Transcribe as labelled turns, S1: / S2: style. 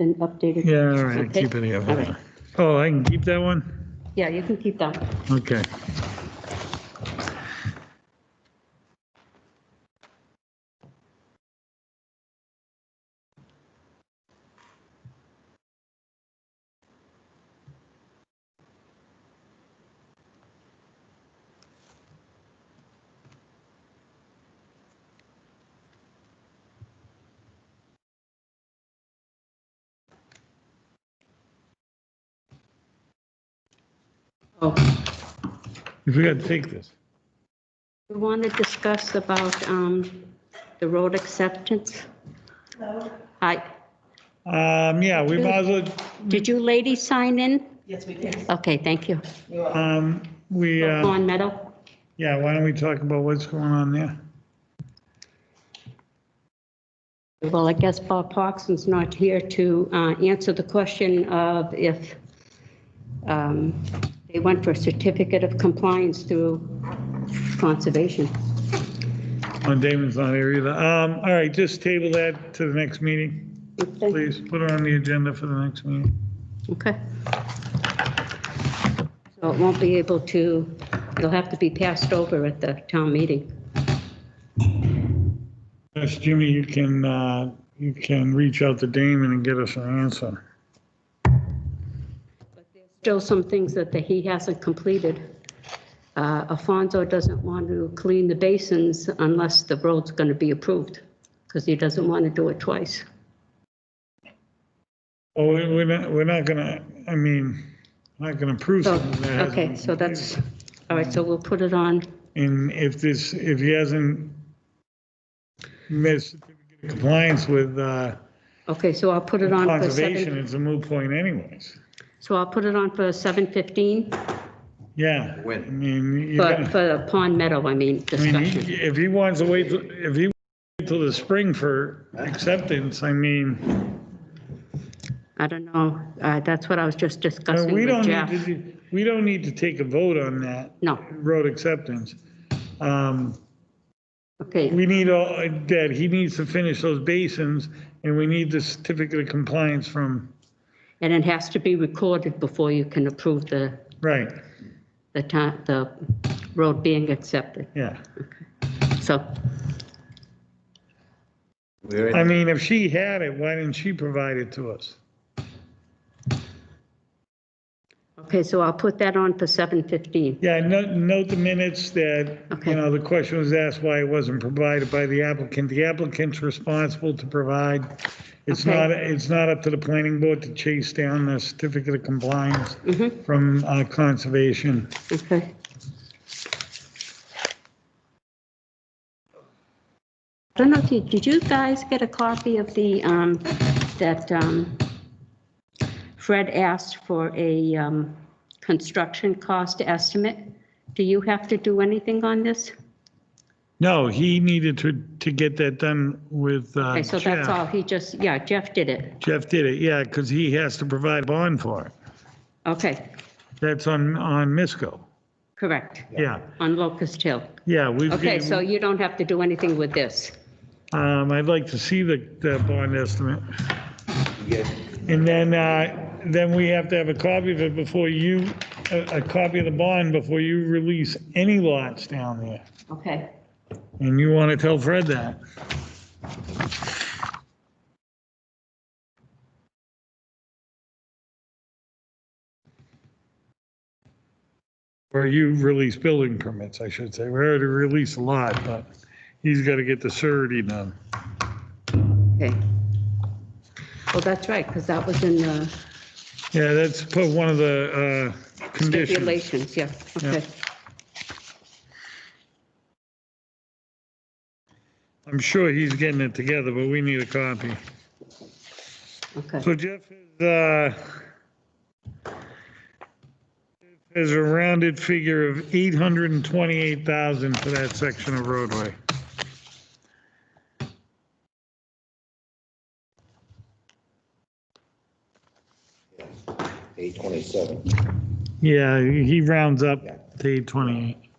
S1: been updated.
S2: Yeah, all right,
S1: Okay.
S2: keep it
S1: All right.
S2: here. Oh, I can keep that one?
S1: Yeah, you can keep that. one.
S2: Okay.
S1: Oh,
S2: We gotta take this.
S1: we want to discuss about um, the road acceptance. Hi,
S2: Um, yeah, we might as well,
S1: did you ladies sign in?
S3: Yes, we did.
S1: Okay, thank you.
S2: um, we, uh,
S1: Lawn Meadow?
S2: yeah, why don't we talk about what's going on there?
S1: Well, I guess Bob Parkinson's not here to uh, answer the question of if um, they went for a certificate of compliance through conservation.
S2: Oh, Damon's not here either. Um, all right, just table that to the next meeting, please. Put it on the agenda for the next meeting.
S1: Okay. So it won't be able to, it'll have to be passed over at the town meeting.
S2: Yes, Jimmy, you can, uh, you can reach out to Damon and get us an answer.
S1: Still some things that the- he hasn't completed. Uh, Alfonso doesn't want to clean the basins unless the road's going to be approved, because he doesn't want to do it twice.
S2: Oh, we- we're not, we're not gonna, I mean, not gonna prove
S1: So,
S2: something that hasn't
S1: okay,
S2: been
S1: so that's, all right, so we'll put it on.
S2: And if this, if he hasn't missed compliance with uh,
S1: Okay, so I'll put it on for
S2: conservation,
S1: seven,
S2: it's a moot point anyways.
S1: so I'll put it on for 7:15,
S2: Yeah.
S4: When?
S2: I mean, you
S1: but
S2: gotta-
S1: for the Pond Meadow, I mean,
S2: I mean,
S1: discussion.
S2: he- if he wants to wait, till- if he wait till the spring for acceptance, I mean,
S1: I don't know, uh, that's what I was just
S2: uh,
S1: discussing
S2: we
S1: with
S2: don't
S1: Jeff.
S2: need to, we don't need to take a vote on that
S1: No,
S2: road acceptance. Um,
S1: okay,
S2: We need all, that he needs to finish those basins and we need the certificate of compliance from,
S1: and it has to be recorded before you can approve the,
S2: right,
S1: the ti the road being accepted,
S2: yeah.
S1: so,
S4: We're
S2: I
S4: in,
S2: mean, if she had it, why didn't she provide it to us?
S1: okay, so I'll put that on for 7:15.
S2: Yeah, note, note the minutes that,
S1: Okay.
S2: you know, the question was asked why it wasn't provided by the applicant. The applicant's responsible to provide. It's
S1: Okay.
S2: not, it's not up to the planning board to chase down the certificate of compliance
S1: Mhm.
S2: from uh, conservation.
S1: Okay. I don't know, if you- did you guys get a copy of the, um, that um, Fred asked for a um, construction cost estimate? Do you have to do anything on this?
S2: No, he needed to, to get that done with uh,
S1: Okay, so that's
S2: Jeff.
S1: all, he just, yeah, Jeff did it.
S2: Jeff did it, yeah, because he has to provide bond for it.
S1: Okay,
S2: That's on, on Misco,
S1: correct,
S2: yeah,
S1: on Locust Hill.
S2: yeah, we've.
S1: Okay, so you don't have to do anything with this.
S2: Um, I'd like to see the, the bond estimate.
S4: yeah,
S2: And then, uh, then we have to have a copy of it before you, a, a copy of the bond before you release any lots down there.
S1: Okay,
S2: And you want to tell Fred that. Or you release building permits, I should say. We already released a lot, but he's got to get the surety done.
S1: okay. Well, that's right, because that was in the.
S2: Yeah, that's put one of the, uh, conditions.
S1: Stipulations, yeah,
S2: Yeah.
S1: okay.
S2: I'm sure he's getting it together, but we need a copy.
S1: Okay,
S2: So Jeff is, uh, has a rounded figure of 828,000 for that section of roadway.
S4: eight twenty-seven.
S2: Yeah, he rounds up to 828.